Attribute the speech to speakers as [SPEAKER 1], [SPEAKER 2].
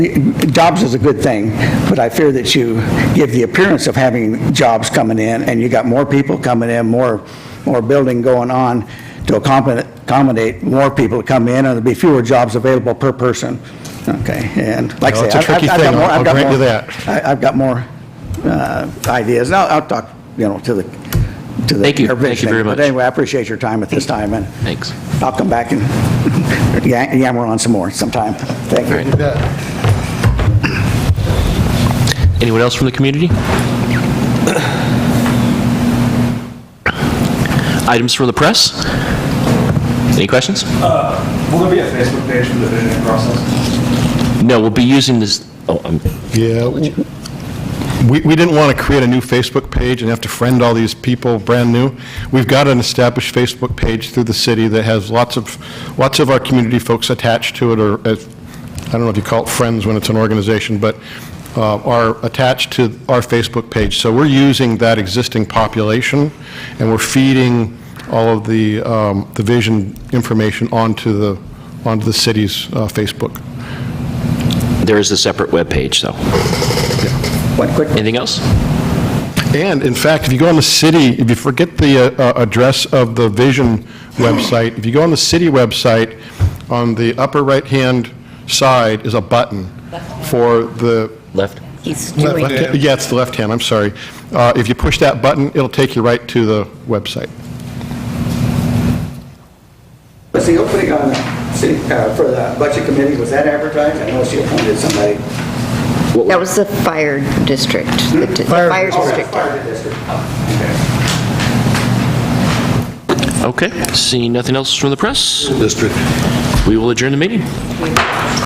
[SPEAKER 1] Jobs is a good thing, but I fear that you give the appearance of having jobs coming in, and you got more people coming in, more, more building going on to accommodate- accommodate more people to come in, and there'll be fewer jobs available per person. Okay, and like
[SPEAKER 2] Well,
[SPEAKER 1] I
[SPEAKER 2] it's
[SPEAKER 1] say. I've-
[SPEAKER 2] a
[SPEAKER 1] I've-
[SPEAKER 2] tricky
[SPEAKER 1] I've got
[SPEAKER 2] thing.
[SPEAKER 1] more-
[SPEAKER 2] I'll-
[SPEAKER 1] I've
[SPEAKER 2] I'll
[SPEAKER 1] got
[SPEAKER 2] grant you
[SPEAKER 1] more-
[SPEAKER 2] that.
[SPEAKER 1] I- I've got more uh, ideas, and I'll I'll talk, you know, to the, to the.
[SPEAKER 3] Thank you. Thank you
[SPEAKER 1] provisioning.
[SPEAKER 3] very much.
[SPEAKER 1] But anyway, I appreciate your time at this time, and
[SPEAKER 3] Thanks.
[SPEAKER 1] I'll come back and yam- yammer on some more sometime. Thank you.
[SPEAKER 3] All right. Anyone else from the community? Items from the press? Any questions?
[SPEAKER 4] Will there be a Facebook page for the visioning process?
[SPEAKER 3] No, we'll be using this, oh, I'm-
[SPEAKER 2] Yeah, w- we, we didn't want to create a new Facebook page and have to friend all these people brand new. We've got an established Facebook page through the city that has lots of, lots of our community folks attached to it, or, uh, I don't know if you call it friends when it's an organization, but uh, are attached to our Facebook page. So we're using that existing population, and we're feeding all of the, um, the vision information onto the, onto the city's uh, Facebook.
[SPEAKER 3] there is a separate webpage, though.
[SPEAKER 1] One quick
[SPEAKER 3] Anything else?
[SPEAKER 2] And in fact, if you go on the city, if you forget the uh, uh, address of the Vision website, if you go on the city website, on the upper right-hand side is a button for the,
[SPEAKER 3] Left?
[SPEAKER 5] He's doing it.
[SPEAKER 2] Left- yeah, it's the left hand, I'm sorry. Uh, If you push that button, it'll take you right to the website.
[SPEAKER 1] Was the opening on the city, uh, for the budget committee, was that advertised? I know she appointed somebody.
[SPEAKER 5] That was the fire district. The the fire district.
[SPEAKER 1] Fire district.
[SPEAKER 3] Okay, seeing nothing else from the press? District. We will adjourn the meeting.